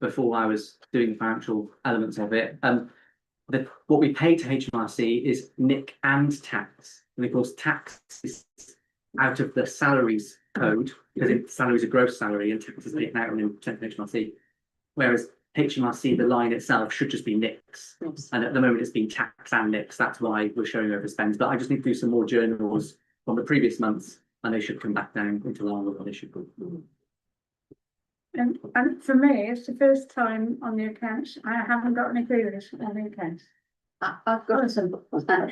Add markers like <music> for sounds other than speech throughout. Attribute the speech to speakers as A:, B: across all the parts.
A: before I was doing the financial elements of it. Um, the, what we pay to HMRC is nick and tax, and of course, tax is out of the salaries code, because it- salaries are gross salary and tax is taken out on percent of HMRC. Whereas HMRC, the line itself should just be nicks, and at the moment it's been tax and nicks, that's why we're showing overspends, but I just need to do some more journals from the previous months, and they should come back down into line with what they should be.
B: And, and for me, it's the first time on the accounts, I haven't got any queries on the accounts.
C: I, I've got some.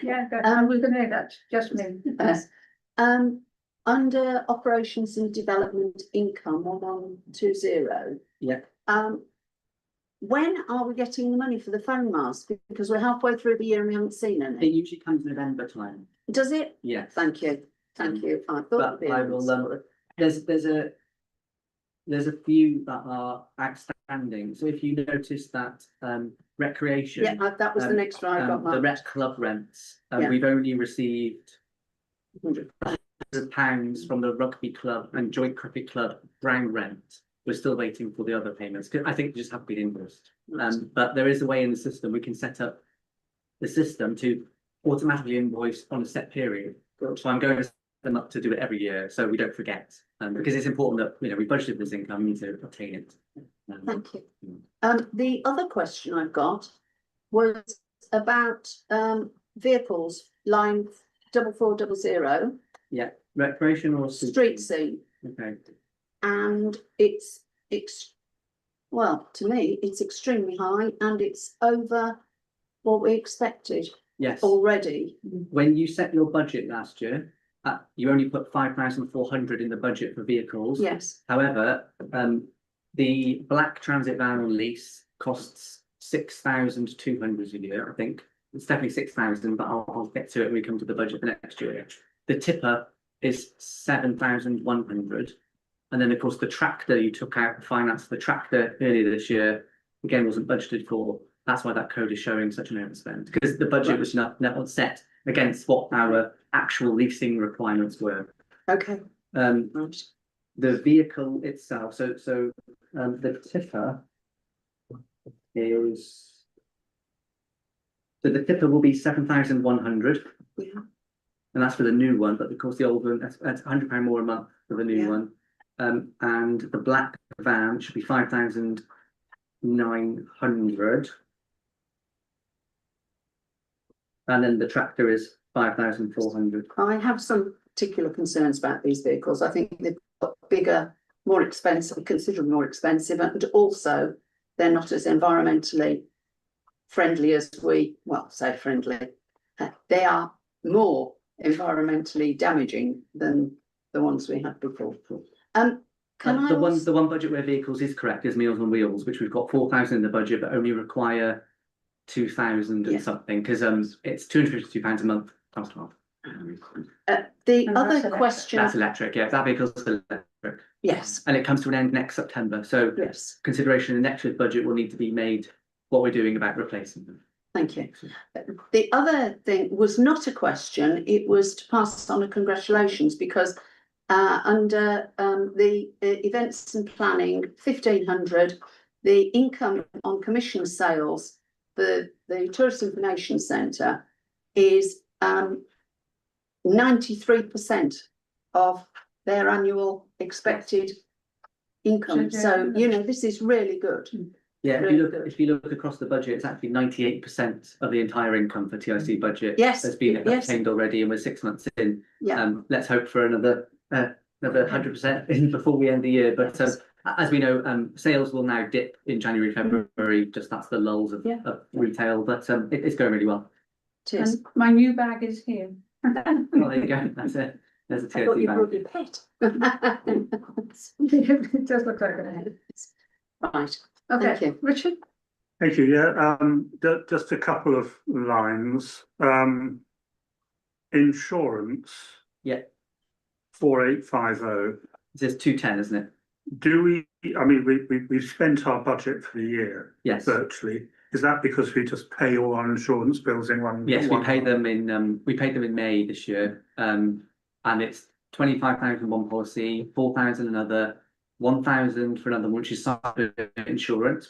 B: Yeah, go- I
C: Um,
B: was gonna say that, just me.
C: Yes. Um, under operations and development income, one one two zero.
A: Yeah.
C: Um, when are we getting the money for the phone mask? Because we're halfway through the year and we haven't seen
A: It
C: any.
A: usually comes November time,
C: Does it?
A: yes.
C: Thank you, thank you. I thought.
A: But
C: it'd be
A: I
C: on
A: will,
C: this.
A: um, there's, there's a. There's a few that are outstanding, so if you notice that, um, recreation.
C: Yeah, I- that was the
A: um,
C: next one I got
A: um, the
C: marked.
A: rec club rents, uh,
C: Yeah.
A: we've only received. Hundred pounds from the rugby club and joint cricket club ground rent, we're still waiting for the other payments, 'cause I think they just haven't been invoiced. Um, but there is a way in the system, we can set up the system to automatically invoice on a set period. So I'm going to set them up to do it every year, so we don't forget, um, because it's important that, you know, we budgeted this income, we need to obtain it. Um,
C: Thank you.
A: Mm.
C: Um, the other question I've got was about, um, vehicles, line double four double zero,
A: Recreation or?
C: street scene.
A: Okay,
C: and it's ex- well, to me, it's extremely high and it's over what we expected
A: yes.
C: Oh. already.
A: when you set your budget last year, uh, you only put five thousand four hundred in the budget for vehicles.
C: Yes,
A: However, um, the black transit van on lease costs six thousand two hundred a year, I think. It's definitely six thousand, but I'll, I'll get to it when we come to the budget for next year. The tipper is seven thousand one hundred. And then, of course, the tractor you took out, finance the tractor earlier this year, again, wasn't budgeted for. That's why that code is showing such an overspend, because the budget was not, not set against what our actual leasing requirements were.
C: okay,
A: Um,
C: right.
A: the vehicle itself, so, so, um, the tipper is so the tipper will be seven thousand one hundred.
C: Yeah.
A: And that's for the new one, but of course the old one, that's, that's hundred pound more a month for the new
C: Yeah.
A: one. Um, and the black van should be five thousand nine hundred. And then the tractor is five thousand four hundred.
C: I have some particular concerns about these vehicles. I think they've got bigger, more expensive, considerably more expensive, and also they're not as environmentally friendly as we, well, say friendly. Uh, They are more environmentally damaging than the ones we had before. Um, can
A: Uh,
C: I?
A: The one,
C: also-
A: the one budget where vehicles is correct is Meals on Wheels, which we've got four thousand in the budget, but only require two thousand
C: Yeah.
A: and something, because um, it's two hundred fifty-two pounds a month times twelve.
C: Uh, the
B: And that's
C: other
B: electric.
C: question,
A: That's electric, yeah, that vehicle's electric,
C: yes,
A: and it comes to an end next September, so
C: yes,
A: consideration in next year's budget will need to be made what we're doing about replacing them.
C: thank you. The other thing was not a question, it was to pass on a congratulations because uh, under um, the uh, events and planning fifteen hundred, the income on commission sales for the Tourist Information Centre is um ninety-three percent of their annual expected income. So, you know, this is really good.
A: Yeah, if
C: Really
A: you look,
C: good.
A: if you look across the budget, it's actually ninety-eight percent of the entire income for TIC budget.
C: Yes,
A: Has been
C: yes.
A: obtained already, and we're six months in,
C: Yeah,
A: Um, let's hope for another, uh, another hundred percent in before we end the year, but, um, a- as we know, um, sales will now dip in January, February, just that's the lulls of,
C: Mm. Yeah.
A: of retail, but, um, it, it's going really
C: <laughs>
A: well.
C: it is.
B: And my new bag is here. <laughs>
A: Well, there you go, that's it, there's a
C: I
A: tear
C: thought
A: to
C: you
A: your
C: brought
A: bank.
C: your pet.
B: It does look like it.
C: Right, Thank
B: Okay,
C: you.
B: Richard,
D: Thank you, yeah, um, ju- just a couple of lines, um. Insurance.
A: Yeah.
D: Four eight five oh,
A: It says two ten, isn't it?
D: do we, I mean, we, we, we've spent our budget for the year
A: Yes,
D: virtually. Is that because we just pay all our insurance bills in one?
A: yes, we
D: one-
A: paid them in, um, we paid them in May this year, um, and it's twenty-five thousand one policy, four thousand another, one thousand for another, one, which is cyber insurance,